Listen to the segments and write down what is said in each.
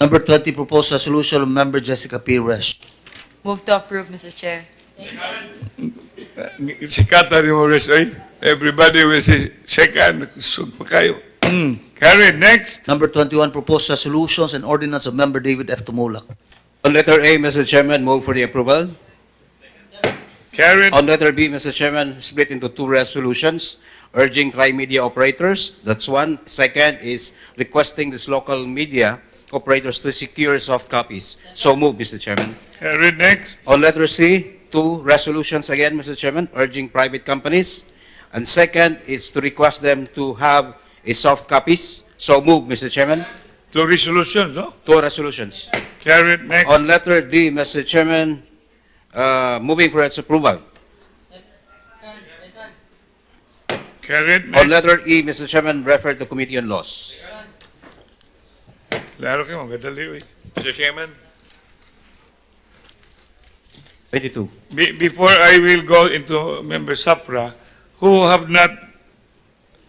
Number 20, proposed resolution of Member Jessica P. Resch. Move to approve, Mr. Chair. Sikata ni mo Resh, ay. Everybody will say, second, kusog pa kayo. Carried, next. Number 21, proposed resolutions and ordinance of Member David F. Tumulak. On letter A, Mr. Chairman, move for the approval. Carried, On letter B, Mr. Chairman, split into two resolutions urging tri-media operators, that's one. Second is requesting these local media operators to secure soft copies. So move, Mr. Chairman. carried, next. On letter C, two resolutions again, Mr. Chairman, urging private companies. And second is to request them to have a soft copies. So move, Mr. Chairman. Two resolutions, no? Two resolutions. Carried, next. On letter D, Mr. Chairman, uh, moving for its approval. Carried, On next. letter E, Mr. Chairman, referred to Committee on Laws. Laro kayo, magadali. eh. Mr. Chairman, 22. Be- Before I will go into Member Sapra, who have not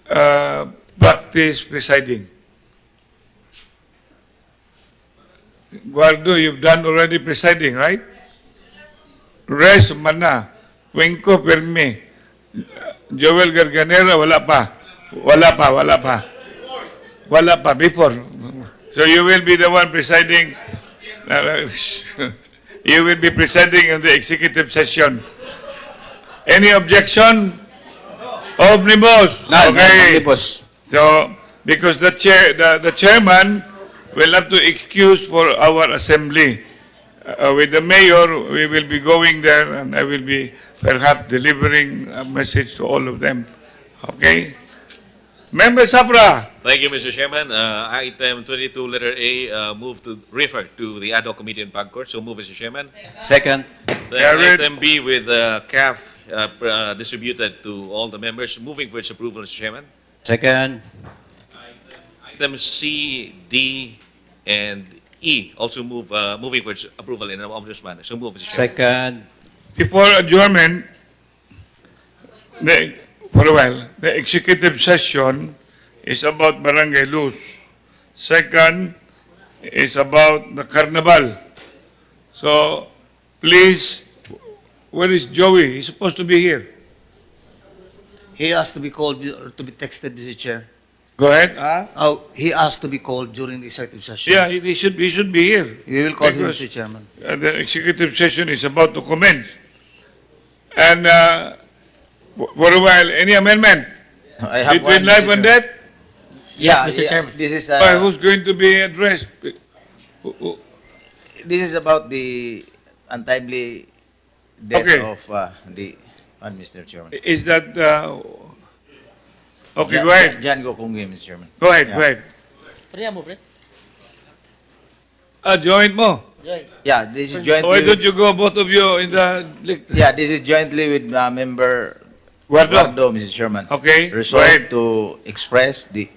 uh, practiced presiding? Guardo, you've done already presiding, right? Res Mana, Wenko Perme, Joel Garganera, wala pa. Wala pa, wala pa. Wala pa, before. So you will be the one presiding. You will be presiding in the executive session. Any objection? Omnibus? None, Okay. omnibus. So, because the chair, the, the chairman will have to excuse for our assembly. Uh, with the mayor, we will be going there and I will be perhaps delivering a message to all of them. Okay? Member Safra, thank you, Mr. Chairman. Uh, item 22, letter A, uh, move to refer to the ad hoc committee in Pagcor. So move, Mr. Chairman. Second. Then Carried. item B with uh, CAF uh, pr- uh, distributed to all the members. Moving for its approval, Mr. Chairman. Second. Item C, D, and E also move uh, moving for its approval in an omnibus manner. So move, Mr. Chairman. Second. before adjournment, the, for a while, the executive session is about barangay Luz. Second is about the carnival. So, please, where is Joey? He's supposed to be here. He asked to be called, to be texted, Mr. Chair. Go ahead. Ah? Oh, he asked to be called during the executive session. Yeah, he, he should, he should be here. We will call him, Because- Mr. Chairman. Uh, the executive session is about to commence. And uh, for a while, any amendment I have between one, life Mr. and Chairman. death? Yes, Yeah, Mr. yeah. Chairman. This is, By uh, who's going to be addressed? Who- who- this is about the untimely death Okay. of uh, the, uh, Mr. Chairman. Is that, uh, okay, Jan- go ahead, Jan Gokongwe, Mr. Chairman. go ahead, go Yeah. ahead. Ah, joint mo. Yeah, this is jointly. Why don't with- you go, both of you, in the, Yeah, this is jointly with uh, member Guardo? Guardo, Mr. Chairman. Okay, go ahead. Resolved to express the,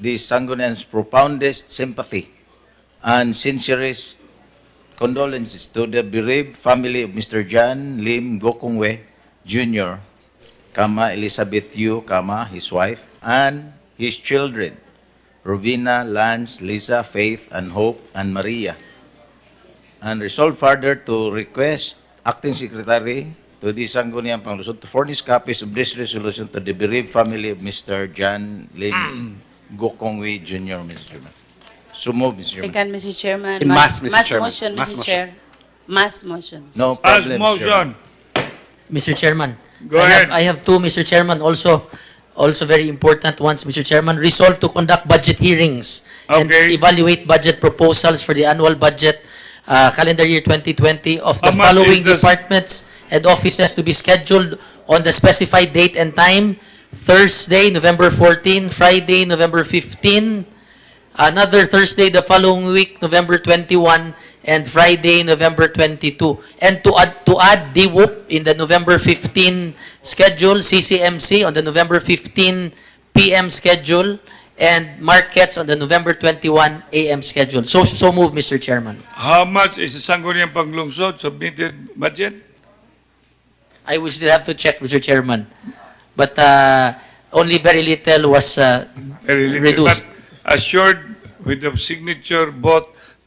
the Sangguniang's profoundest sympathy and sincerest condolences to the bereaved family of Mr. John Lim Gokongwe Jr., kama Elizabeth Yu, kama his wife, and his children, Rovina, Lance, Lisa, Faith, and Hope, and Maria. And resolve further to request Acting Secretary to the Sangguniang Panglusod to furnish copies of this resolution to the bereaved family of Mr. John Lim Gokongwe Jr., Mr. Chairman. So move, Mr. Chairman. Second, Mr. Chairman. In mass, Mr. Chairman. motion, Mass Mr. motion. Chair. Mass motion. No As problem, Mr. Chairman. motion. Mr. Chairman. Go I ahead. have- I have two, Mr. Chairman, also, also very important ones, Mr. Chairman. Resolve to conduct budget hearings and Okay. evaluate budget proposals for the annual budget, uh, calendar year 2020 of the How much is following this? departments and offices to be scheduled on the specified date and time, Thursday, November 14, Friday, November 15, another Thursday the following week, November 21, and Friday, November 22. And to add, to add DWOOP in the November 15 schedule, CCMC on the November 15 PM schedule, and markets on the November 21 AM schedule. So, so move, Mr. Chairman. How much is the Sangguniang Panglungsod submitted budget? I will still have to check, Mr. Chairman. But uh, only very little was uh, Very little, reduced. but Assured with the signature both